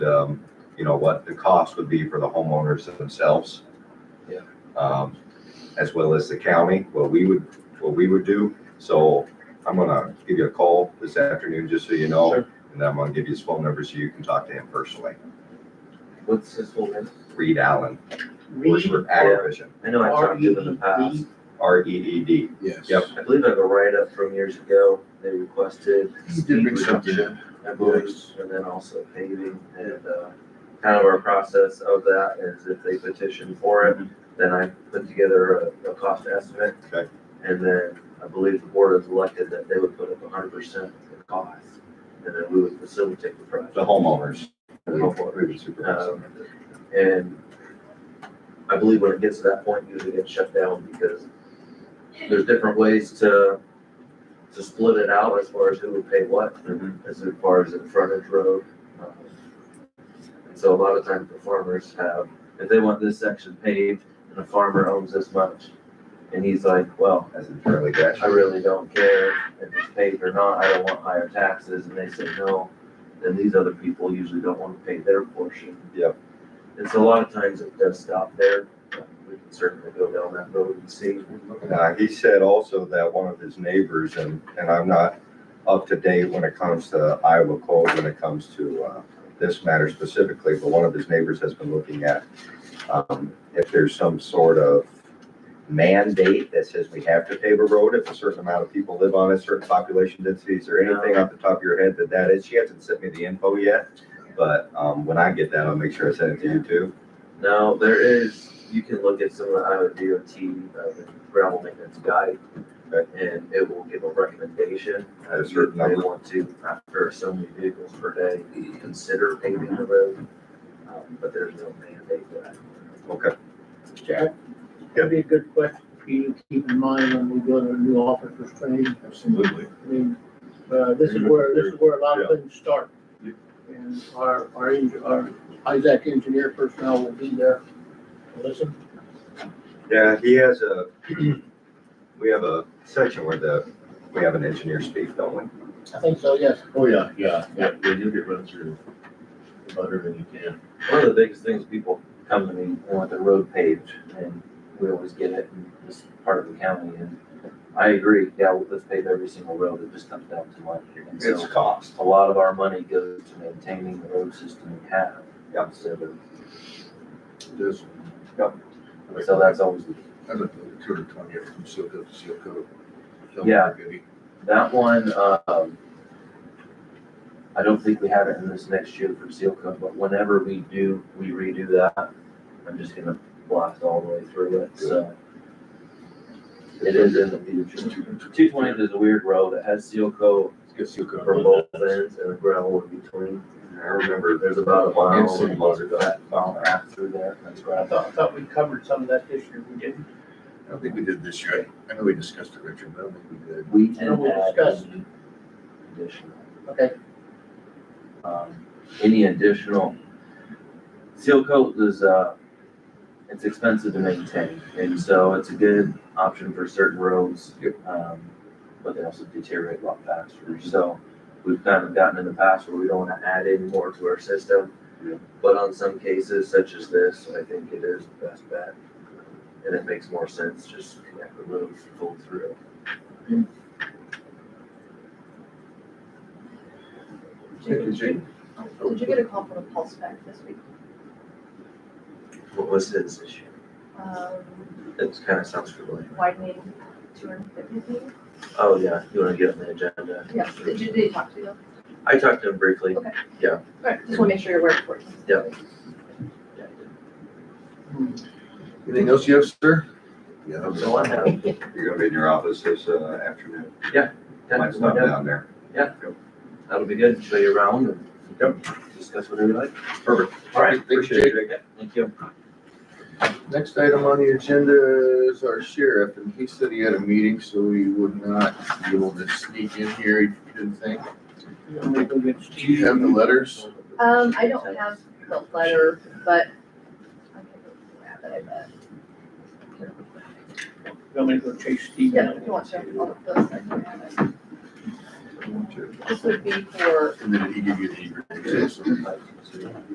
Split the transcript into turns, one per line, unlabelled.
um, you know, what the cost would be for the homeowners themselves.
Yeah.
Um, as well as the county, what we would, what we would do. So I'm gonna give you a call this afternoon, just so you know.
Sure.
And then I'm gonna give you his phone number so you can talk to him personally.
What's his full name?
Reed Allen, works
Reed,
for Agrivision,
I know I talked to him in the
E
past.
R E E D.
Yes.
Yep.
I believe I have a write-up from years ago. They requested
He did bring something
reduction,
in.
I believe,
Yes.
and then also paving. And, uh, kind of our process of that is if they petition for it, then I put together a, a cost estimate.
Okay.
And then I believe the board has elected that they would put up hundred percent of the cost. And then we would facilitate the project.
The homeowners.
The homeowners.
We would supervise them.
Um, And I believe when it gets to that point, usually it gets shut down because there's different ways to, to split it out as far as who would pay what,
Mhm.
as far as the frontage road. um, And so a lot of times the farmers have, if they want this section paved and the farmer owns this much, and he's like, well,
As in Charlie Gatch.
I really don't care if it's paved or not, I don't want higher taxes, and they say no, then these other people usually don't wanna pay their portion.
Yep.
And so a lot of times it does stop there, but we can certainly go down that road and see.
Now, uh, he said also that one of his neighbors, and, and I'm not up to date when it comes to Iowa code, when it comes to, uh, this matter specifically, but one of his neighbors has been looking at, um, if there's some sort of mandate that says we have to pave a road if a certain amount of people live on it, certain population densities, or anything off the top of your head that that is. She hasn't sent me the info yet, but, um, when I get that, I'll make sure I send it to you too.
Now, there is, you can look at some of the Iowa DOT, uh, gravel maintenance guide, and it will give a recommendation.
At a certain
They
number.
want to, after so many vehicles per day, consider paving the road, um, but there's no mandate for that.
Okay.
Jack, that'd be a good question for you to keep in mind when we go to a new office for training.
Absolutely.
I mean, uh, this is where, this is where a lot of things start.
Yeah.
And our, our, eng- our Isaac engineer personnel will be there. Listen,
Yeah, he has a, we have a section where the, we have an engineer speak, don't we?
I think so, yes.
Oh, yeah, yeah, yeah, yeah, you'll get run through about everything you can.
One of the biggest things people come to me, they want their road paved, and we always get it, and this is part of the county, and I agree, yeah, well, let's pave every single road, it just comes down to money. And
It's
so,
cost.
a lot of our money goes to maintaining the road system we have,
Yep.
instead of,
This.
Yep.
so that's always,
I looked at the two hundred twenty years from seal coat to seal coat.
Yeah. that one, um, I don't think we have it in this next year for seal coat, but whenever we do, we redo that, I'm just gonna blast all the way through it, so. It is in the future. Two twenty is a weird road. It has seal coat
Get seal coat.
from both ends and a gravel in between.
I remember
There's about a mile
It's in
of that mile and a half through there. That's
I
right.
thought, I thought we covered some of that this year, we didn't.
I don't think we did this year. I I know we discussed it, Richard, but I don't think we did.
We
I know
can
we
add
discussed.
any additional,
Okay,
um, any additional. Seal coat is, uh, it's expensive to maintain and so it's a good option for certain roads. Um, but they also deteriorate a lot faster. So we've kind of gotten in the past where we don't want to add any more to our system.
Yeah.
But on some cases such as this, I think it is the best bet. And it makes more sense just to connect the roads full through.
Did you-
Did you get a call from a pulse back this week?
What was his issue?
Um,
It kind of sounds familiar.
widening two hundred fifty feet?
Oh, yeah, you want to get on the agenda?
Yes, did you, did you talk to them?
I talked to him briefly.
Okay.
Yeah.
Alright, just wanna make sure you're aware of it.
Yeah, he did.
Anything else you have, sir? Yeah.
That's all I have.
you're gonna be in your office this uh, afternoon. Might stop
Yeah,
down there.
That'll be good. Show you around and discuss whatever you like.
Perfect.
All right, thanks, Jake.
Thank you.
Next item on the agenda is our sheriff, and he said he had a meeting, so he would not be able to sneak in here, he didn't think.
you know, we go get
Do you have the
Steve.
letters?
Um, I don't have the letter, but I can grab it, I bet.
I'm gonna go chase Steve.
Yeah, if you want to, I'll, those, I can grab it. This would be for
And then did he give you the address?